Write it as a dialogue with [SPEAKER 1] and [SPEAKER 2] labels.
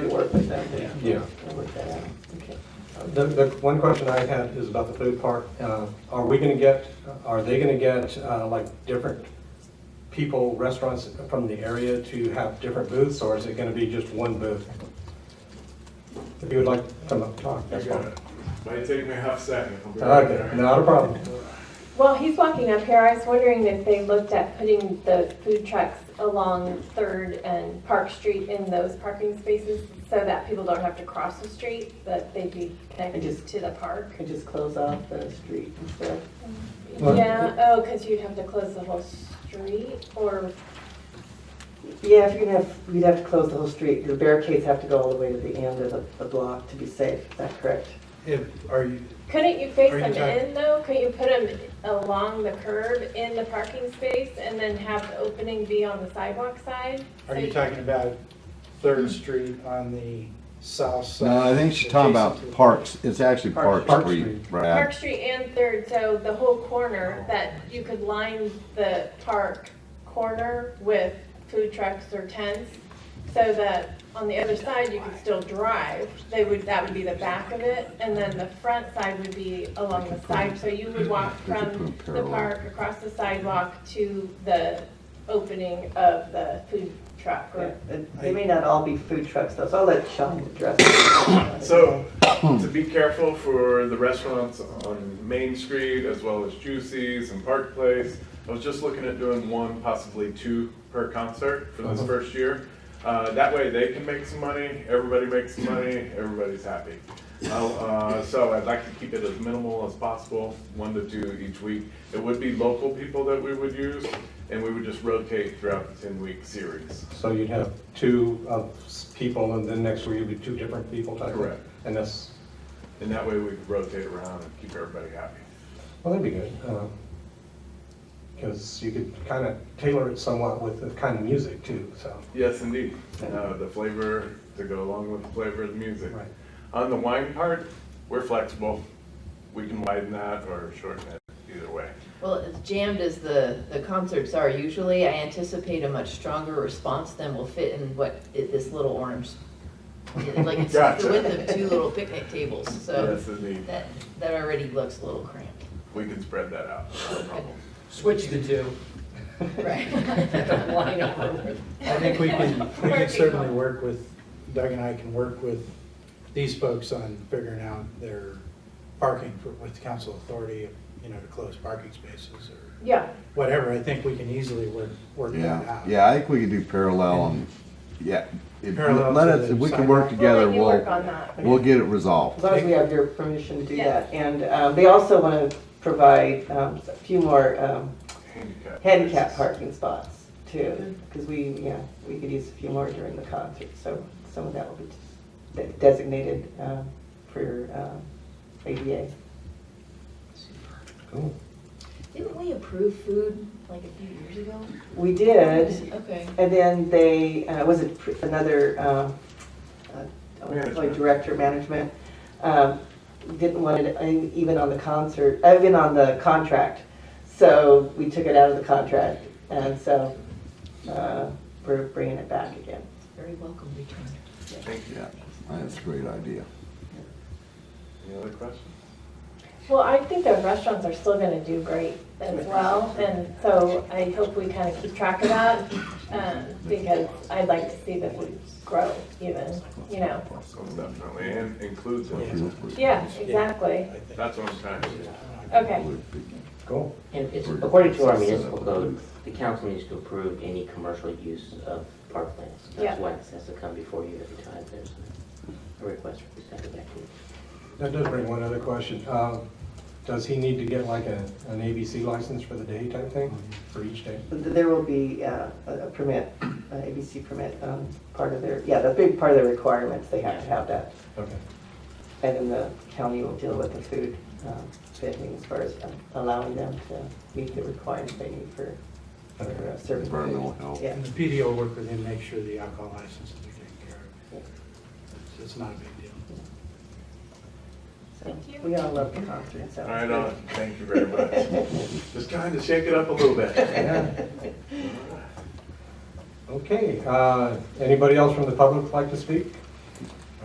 [SPEAKER 1] to work with that then?
[SPEAKER 2] Yeah.
[SPEAKER 1] I'll work that out. Okay.
[SPEAKER 3] The, the one question I had is about the food park. Uh, Are we gonna get, are they gonna get, uh, like, different people, restaurants from the area to have different booths, or is it gonna be just one booth? If you would like to come up and talk, that's fine.
[SPEAKER 4] Might take me half second. I'll be right
[SPEAKER 3] Okay,
[SPEAKER 4] there.
[SPEAKER 3] not a problem.
[SPEAKER 5] Well, he's walking up here. I was wondering if they looked at putting the food trucks along Third and Park Street in those parking spaces so that people don't have to cross the street, but they'd be connected to the park.
[SPEAKER 1] Could just close off the street and stuff.
[SPEAKER 3] Well-
[SPEAKER 5] Yeah, oh, because you'd have to close the whole street or,
[SPEAKER 1] Yeah, if you're gonna have, you'd have to close the whole street, the barricades have to go all the way to the end of the, the block to be safe, is that correct?
[SPEAKER 6] If, are you,
[SPEAKER 5] couldn't you face
[SPEAKER 6] Are you
[SPEAKER 5] them
[SPEAKER 6] talking-
[SPEAKER 5] in though? Couldn't you put them along the curb in the parking space and then have the opening be on the sidewalk side?
[SPEAKER 6] are
[SPEAKER 5] So
[SPEAKER 6] you talking about Third Street on the south side?
[SPEAKER 7] No, I think she's talking about
[SPEAKER 6] adjacent to-
[SPEAKER 7] Parks, it's actually
[SPEAKER 1] Park
[SPEAKER 7] Park
[SPEAKER 3] Street.
[SPEAKER 7] Street,
[SPEAKER 5] Park
[SPEAKER 7] Brad.
[SPEAKER 5] Street and Third, so the whole corner, that you could line the park corner with food trucks or tents, so that on the other side, you could still drive, they would, that would be the back of it, and then the front side would be along the side, so you would walk
[SPEAKER 7] We could
[SPEAKER 5] from
[SPEAKER 7] put 'em
[SPEAKER 5] the
[SPEAKER 7] parallel.
[SPEAKER 5] park across the sidewalk to the opening of the food truck,
[SPEAKER 1] Yeah,
[SPEAKER 5] or,
[SPEAKER 1] and They may not all be food trucks, though, so I'll let Sean address it.
[SPEAKER 4] So, to be careful for the restaurants on Main Street as well as Juicy's and Park Place, I was just looking at doing one, possibly two per concert for this
[SPEAKER 3] Uh-huh.
[SPEAKER 4] first year. Uh, that way they can make some money, everybody makes some money, everybody's happy. I'll, Uh, so I'd like to keep it as minimal as possible, one to two each week. It would be local people that we would use, and we would just rotate throughout the ten-week series.
[SPEAKER 3] So you'd have two of s- people, and then next week it'd be two different people type? of-
[SPEAKER 4] Correct.
[SPEAKER 3] And that's,
[SPEAKER 4] And that way we could rotate around and keep everybody happy.
[SPEAKER 3] well, that'd be good. Because you could kind of tailor it somewhat with the kind of music too, so.
[SPEAKER 4] Yes, indeed. Uh, the flavor to go along with the flavor of the music.
[SPEAKER 3] Right.
[SPEAKER 4] On the wine part, we're flexible. We can widen that or shorten it either way.
[SPEAKER 8] Well, as jammed as the, the concerts are usually, I anticipate a much stronger response than will fit in what, i- this little orange. Like, it's just
[SPEAKER 4] Gotcha.
[SPEAKER 8] the width of two little picnic tables, so
[SPEAKER 4] Yes, indeed.
[SPEAKER 8] that, that already looks a little cramped.
[SPEAKER 4] We can spread that out. No problem.
[SPEAKER 9] Switch the two.
[SPEAKER 8] Right.
[SPEAKER 9] Line over.
[SPEAKER 6] I think we can, we can certainly work with, Doug and I can work with these folks on figuring out their parking for- with council authority, you know, to close parking spaces or
[SPEAKER 5] yeah.
[SPEAKER 6] whatever. I think we can easily work, work that
[SPEAKER 7] Yeah,
[SPEAKER 6] out.
[SPEAKER 7] yeah, I think we could do parallel on, yeah. If-
[SPEAKER 6] Parallel
[SPEAKER 7] Let
[SPEAKER 6] to
[SPEAKER 7] us,
[SPEAKER 6] the
[SPEAKER 7] if we can
[SPEAKER 6] sidewalk?
[SPEAKER 7] work together,
[SPEAKER 5] We'll let you work
[SPEAKER 7] we'll,
[SPEAKER 5] on that.
[SPEAKER 7] we'll get it
[SPEAKER 1] As
[SPEAKER 7] resolved.
[SPEAKER 1] long as we have your permission to do
[SPEAKER 5] Yes.
[SPEAKER 1] that, and, um, they also wanna provide, um, a few more, um,
[SPEAKER 4] Handicap.
[SPEAKER 1] handicap parking spots too, because we, yeah, we could use a few more during the concert, so some of that will be de- designated uh, for um, ADA.
[SPEAKER 3] Cool.
[SPEAKER 8] Didn't we approve food like a few years ago?
[SPEAKER 1] We did,
[SPEAKER 8] Okay.
[SPEAKER 1] and then they, uh, was it pr- another, um, uh, I wanna call it
[SPEAKER 4] Management.
[SPEAKER 1] director management, um, didn't want it in- even on the concert, uh, even on the contract, so we took it out of the contract, and so uh, we're bringing it back again.
[SPEAKER 8] Very welcome return.
[SPEAKER 4] Thank you.
[SPEAKER 7] Yeah, that's a great idea.
[SPEAKER 4] Any other questions?
[SPEAKER 5] Well, I think the restaurants are still gonna do great as well, and so I hope we kind of keep track of that, um, because I'd like to see the food grow even, you know?
[SPEAKER 4] Most definitely, and includes
[SPEAKER 6] Yeah.
[SPEAKER 4] them.
[SPEAKER 5] Yeah, exactly,
[SPEAKER 6] I think.
[SPEAKER 4] That's what I'm trying to do.
[SPEAKER 5] okay.
[SPEAKER 3] Cool.
[SPEAKER 10] And it's, according to our municipal code, the council needs to approve any commercial use of parklands.
[SPEAKER 5] Yeah.
[SPEAKER 10] That's why this has to come before you every time there's a request for this kind of activity.
[SPEAKER 3] That does bring one other question. Um, Does he need to get like a, an ABC license for the day type thing, for each day?
[SPEAKER 1] But There will be uh, a a permit, uh, a ABC permit, um, part of their, yeah, the big part of their requirements, they have to have that.
[SPEAKER 3] Okay.
[SPEAKER 1] And then the county will deal with the food um, vending as far as um, allowing them to meet the requirements they need for for, uh, serving. food.
[SPEAKER 7] Environmental health.
[SPEAKER 1] Yeah.
[SPEAKER 6] And the PD will work with him, make sure the alcohol license is taken care of. So It's not a big deal.
[SPEAKER 1] so
[SPEAKER 5] Thank you.
[SPEAKER 1] We all love the concert, so. it's
[SPEAKER 4] All right,
[SPEAKER 1] good.
[SPEAKER 4] on. Thank you very much. Just trying to shake it up a little bit.
[SPEAKER 3] Okay, uh, anybody else from the public like to speak?